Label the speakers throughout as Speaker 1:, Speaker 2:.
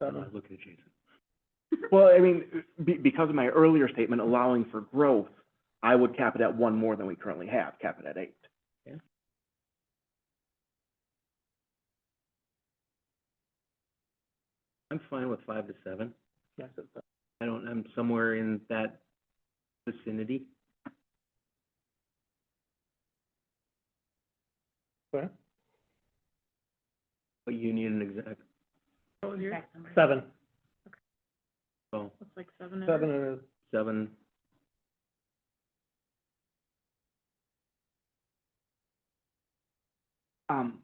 Speaker 1: Uh,
Speaker 2: Look at Jason.
Speaker 1: Well, I mean, be, because of my earlier statement allowing for growth, I would cap it at one more than we currently have, cap it at eight.
Speaker 2: Yeah. I'm fine with five to seven.
Speaker 1: Yes, it's, uh,
Speaker 2: I don't, I'm somewhere in that vicinity.
Speaker 1: Where?
Speaker 2: But you need an exact,
Speaker 1: Seven.
Speaker 2: so,
Speaker 3: It's like seven.
Speaker 1: and.
Speaker 2: seven,
Speaker 1: Um.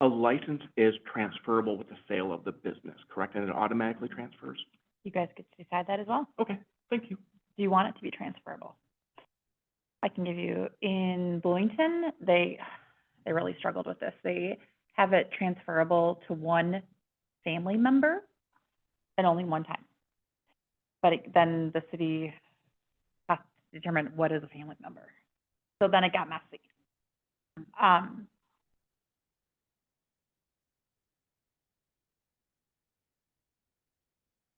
Speaker 1: A license is transferable with the sale of the business, correct? And it automatically transfers?
Speaker 3: You guys get to decide that as well.
Speaker 1: Okay, thank you.
Speaker 3: Do you want it to be transferable? I can give you, in Bloomington, they, they really struggled with this. They have it transferable to one family member and only one time. But it- then the city has to determine what is a family member. So then it got messy. Um,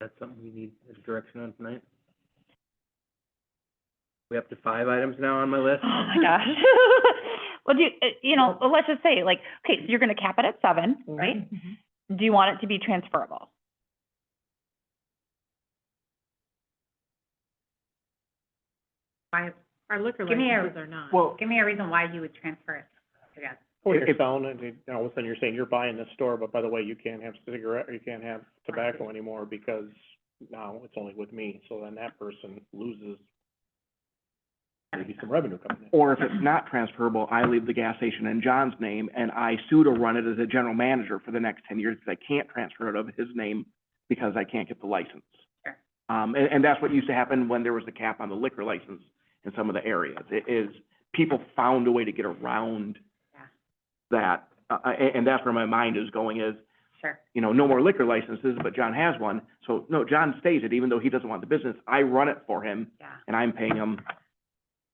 Speaker 2: that's something we need a direction on tonight. We up to five items now on my list?
Speaker 3: Oh my gosh. Well, do, you uh, you know, well, let's just say, like, okay, so you're gonna cap it at seven, right? Do you want it to be transferable?
Speaker 4: why, our liquor
Speaker 3: Give me a-
Speaker 4: licenses are not.
Speaker 1: Well,
Speaker 4: Give me a reason why you would transfer it to that.
Speaker 5: Or
Speaker 1: If-
Speaker 5: you're
Speaker 1: if-
Speaker 5: selling it, and all of a sudden you're saying you're buying this store, but by the way, you can't have cigarette, or you can't have tobacco anymore because now it's only with me, so then that person loses maybe some revenue coming in.
Speaker 1: or if it's not transferable, I leave the gas station in John's name and I sue to run it as a general manager for the next ten years because I can't transfer it of his name because I can't get the license.
Speaker 4: Sure.
Speaker 1: Um, and, and that's what used to happen when there was a cap on the liquor license in some of the areas. It is, people found a way to get around
Speaker 4: Yeah.
Speaker 1: that. Uh, uh, and, and that's where my mind is going is,
Speaker 4: Sure,
Speaker 1: you know, no more liquor licenses, but John has one. So, no, John stays it even though he doesn't want the business. I run it for him
Speaker 4: yeah.
Speaker 1: and I'm paying him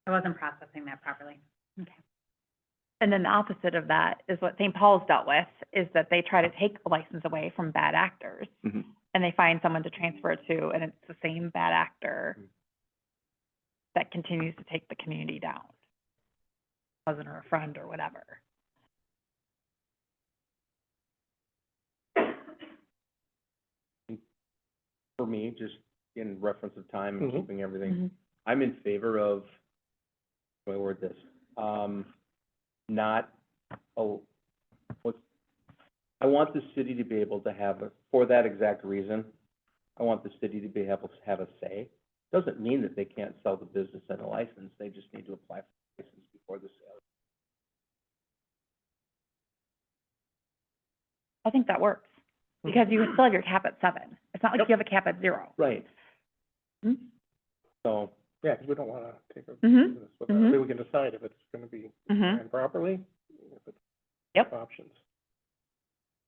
Speaker 4: I wasn't processing that properly.
Speaker 3: And then the opposite of that is what St. Paul's dealt with, is that they try to take the license away from bad actors.
Speaker 1: Mhm.
Speaker 3: And they find someone to transfer it to, and it's the same bad actor that continues to take the community down. Cousin or a friend or whatever.
Speaker 2: For me, just in reference of time and
Speaker 5: Mhm.
Speaker 2: keeping everything I'm in favor of, how do I word this, um, not, oh, what, I want the city to be able to have, a for that exact reason, I want the city to be able to have a say. Doesn't mean that they can't sell the business and a license, they just need to apply for a license before the sale.
Speaker 3: I think that works, because you still have your cap at seven. It's not like you have a cap at zero.
Speaker 2: Right.
Speaker 3: Mhm.
Speaker 2: So,
Speaker 5: Yeah, because we don't wanna take a
Speaker 3: Mhm.
Speaker 5: business without,
Speaker 3: Mhm.
Speaker 5: then we can decide if it's gonna be
Speaker 3: Mm-hmm.
Speaker 5: ran properly, if it's
Speaker 3: Yep.
Speaker 5: options.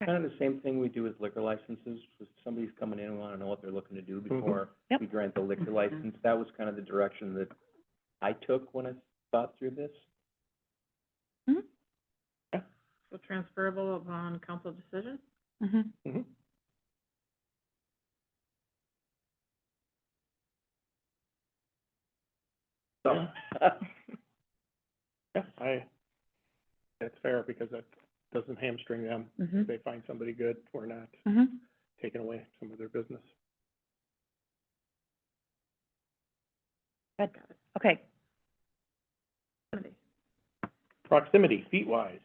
Speaker 2: kind of the same thing we do with liquor licenses, if somebody's coming in and wanna know what they're looking to do
Speaker 5: Mhm.
Speaker 2: before
Speaker 3: Yep.
Speaker 2: we grant the liquor
Speaker 4: Mhm.
Speaker 2: license, that was kind of the direction that I took when I thought through this.
Speaker 4: So transferable upon council decision?
Speaker 3: Mm-hmm.
Speaker 5: Mhm.
Speaker 2: So,
Speaker 5: Yeah, I, that's fair, because that doesn't hamstring them,
Speaker 3: Mm-hmm.
Speaker 5: if they find somebody good, we're not
Speaker 3: Mm-hmm.
Speaker 5: taking away some of their business.
Speaker 3: Good. Okay.
Speaker 5: Proximity, feet wise.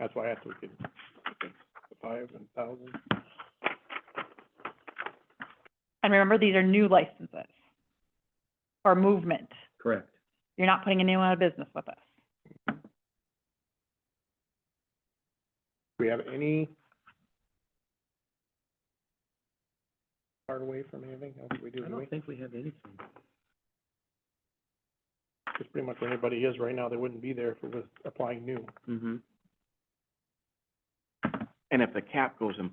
Speaker 5: That's why I asked if we could, five and thousand.
Speaker 3: And remember, these are new licenses or movement.
Speaker 2: correct.
Speaker 3: You're not putting anyone out of business with us.
Speaker 5: Do we have any far away from anything else we do,
Speaker 2: I
Speaker 5: do we?
Speaker 2: don't think we have anything.
Speaker 5: Just pretty much where anybody is right now, they wouldn't be there if it was applying new.
Speaker 2: Mm-hmm.
Speaker 1: And if the cap goes in